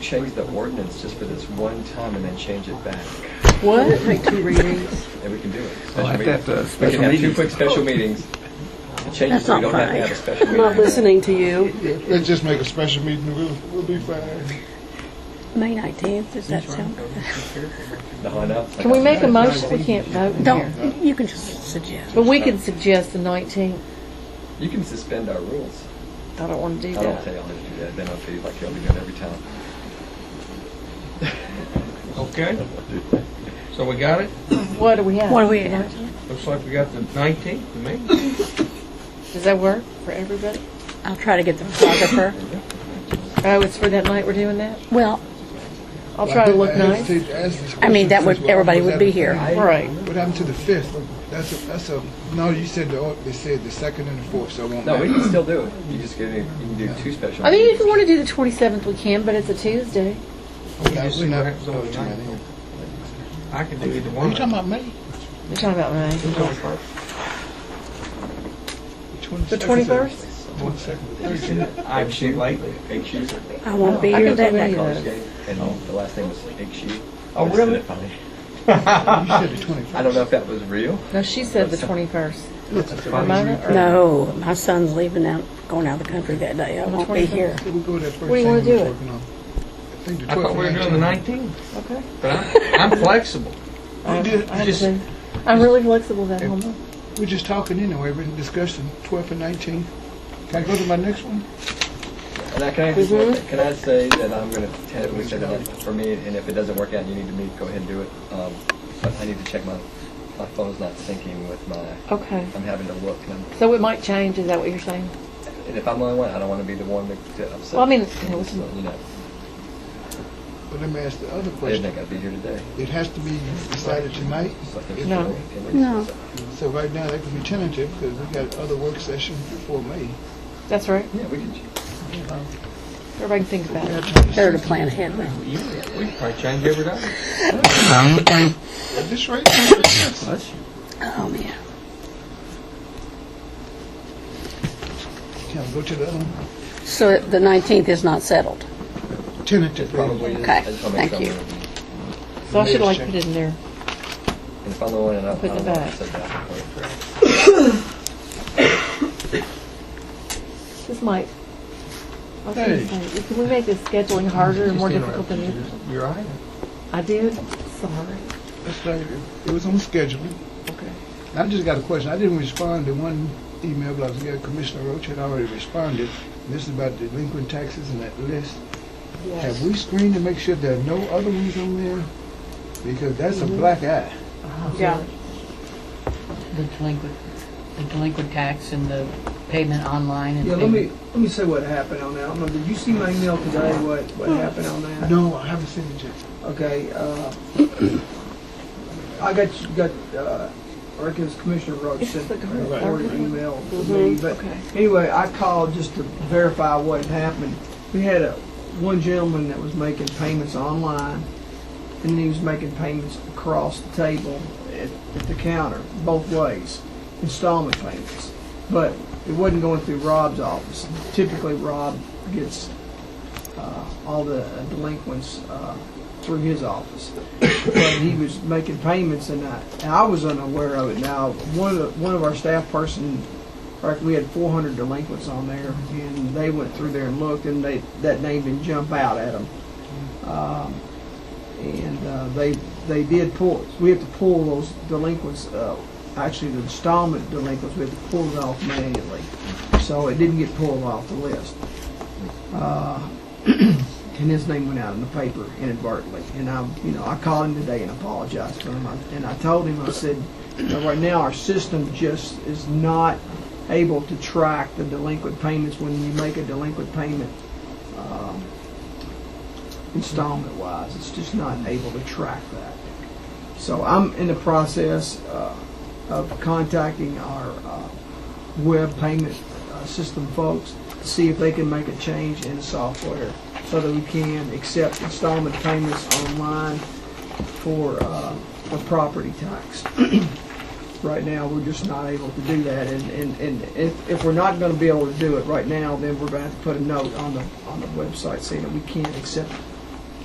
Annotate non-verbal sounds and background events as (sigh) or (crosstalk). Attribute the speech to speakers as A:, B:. A: change the ordinance just for this one time and then change it back,
B: What? Take two readings.
A: and we can do it.
C: Well,
A: Special
C: I'd Oh, have to- uh,
A: meetings. We
C: special
A: can have two
C: meetings.
A: quick special meetings. and Change it
B: That's
A: so we
B: not
A: don't have to have a
B: fine.
A: special
B: I'm
A: meeting.
B: not listening to you.
D: Yeah, Let's just make a special meeting, and we'll, we'll be fine.
E: May 19th, does that sound good?
A: No, I know.
F: Can we make a motion? We can't vote in here.
E: Don't, you can just suggest.
F: But we can suggest the 19th.
A: You can suspend our rules.
F: I don't want to do
A: I don't tell
F: that.
A: y'all to do that, then I'll feel like y'all be doing every time.
G: Okay, so we got it?
F: What do we have?
E: What are we at?
G: Looks like we got the 19th, the
D: (laughs)
G: main.
F: Does that work for everybody?
E: I'll try to get the photographer.
F: Oh, it's for that night we're doing that?
E: Well,
F: I'll try to look
D: I hesitate
F: nice.
D: to ask this
E: I mean, that
D: question
E: would,
D: since we're
E: everybody
D: almost
E: would be
D: out of
E: here.
D: time.
F: Right.
D: What happened to the fifth? That's a, that's a, no, you said the, au- they said the second and the fourth, so it won't
A: No, we
D: matter.
A: can still do it. You just get, you can do two special.
F: I mean, if
A: meetings.
F: you want to do the 27th, we can, but it's a Tuesday.
D: No,
G: just
D: we're
G: see what
D: not
G: happens on the
D: voting on
G: ninth.
D: it.
G: I can do either
D: Are
G: one.
D: you talking about May?
F: You're talking about May. The 21st?
D: Twenty-second.
G: I've seen lately.
A: Egg shoes.
E: I won't be
F: I
E: here
F: can
E: that
F: do
E: night.
F: any of those.
A: And the last name was egg shoe.
G: Oh,
A: I said
G: really?
A: it funny.
D: You said the
A: I
D: twenty-first.
A: don't know if that was real.
F: No, she said the 21st. Am I right?
E: No, my son's leaving out, going out of the country that day. I won't be here.
D: We'll go to that first
F: do
D: thing we
F: you
D: were
F: wanna do it?
D: working on. I think the
G: I thought we were doing the
D: 19th.
G: 19th,
F: Okay.
G: but I'm- I'm flexible.
F: I-
D: did-
F: I
G: just-
F: understand. I'm really flexible that
D: If-
F: whole month.
D: We're just talking anyway, we're discussing twelfth and nineteenth. Can I go to my next one?
A: And I can, I just, can I say that I'm going to tentatively say that for me, and if it doesn't work out, and you need to meet, go ahead and do it. Um, but I need to check my, my phone's not syncing with my,
F: Okay.
A: I'm having to look. And, I'm-
F: So it might change, is that what you're saying?
A: and if I'm the only one, I don't want to be the one that to upset.
F: Well, I mean,
A: people,
F: yeah, we can-
A: so, you know,
D: But let me ask the other
A: I didn't
D: question.
A: think I'd be here today.
D: It has to be decided tonight,
A: So if there's
F: No.
A: can we-
E: No.
D: so right now that could be tentative because we got other work sessions before May.
F: That's right.
A: Yeah, we can.
F: Everybody can think about it.
E: Better to plan ahead.
G: You- We can probably change every day.
D: At this rate, yes.
E: Oh, man.
D: Can I go to the other one?
E: So the 19th is not settled.
D: Tentative.
A: Probably. is.
E: Okay,
A: I just wanna make
E: thank
A: sure I'm
E: you.
A: gonna be-
F: So I should like put it in there.
A: And if I'm the only one, and I don't I
F: Put
A: don't
F: it
A: want to
F: back.
A: upset that.
F: This might. I was
D: Hey.
F: gonna say, Can we make the scheduling harder and more difficult than it?
G: You're right.
F: I did? Sorry.
D: That's right. It- It was on schedule.
F: Okay.
D: And I just got a question. I didn't respond to one email, but I was getting Commissioner Roach had already responded. This is about delinquent taxes and that list. Have we screened to make sure there are no other ones on there? Because that's a black eye.
F: Yeah.
H: the delinquent, the delinquent tax and the payment online and
I: Yeah, let
H: payment-
I: me, let me say what happened on that. I don't know, did you see my email today, what, what happened on that?
D: No, I haven't seen it yet.
I: Okay, uh, I got, got, uh, I reckon it's Commissioner Mm-hmm. Roach sent the email to me, but
F: okay.
I: anyway, I called just to verify what had happened. We had a, one gentleman that was making payments online, and then he was making payments across the table at, at the counter, both ways, installment payments. But it wasn't going through Rob's office. Typically, Rob gets uh, all the delinquents uh, through his office. But he was making payments, and I, and I was unaware of it. Now, one of the, one of our staff person, like we had 400 delinquents on there, and they went through there and looked, and they that name didn't jump out at them. Um, and uh, they they did pull. We have to pull those delinquents. Uh, actually, the installment delinquents we have to pull it off manually, so it didn't get pulled off the list. Uh, and his name went out in the paper inadvertently. And I, you know, I called him today and apologized to him. I, and I told him, I said, you know, right now our system just is not able to track the delinquent payments when you make a delinquent payment um, installment wise. It's just not able to track that. So I'm in the process uh, of contacting our uh, web payment uh, system folks to see if they can make a change in the software so that we can accept installment payments online for, uh, for property tax. (clears throat) Right now, we're just not able to do that, and, and, and if, if we're not gonna be able to do it right now, then we're gonna have to put a note on the, on the website saying that we can't accept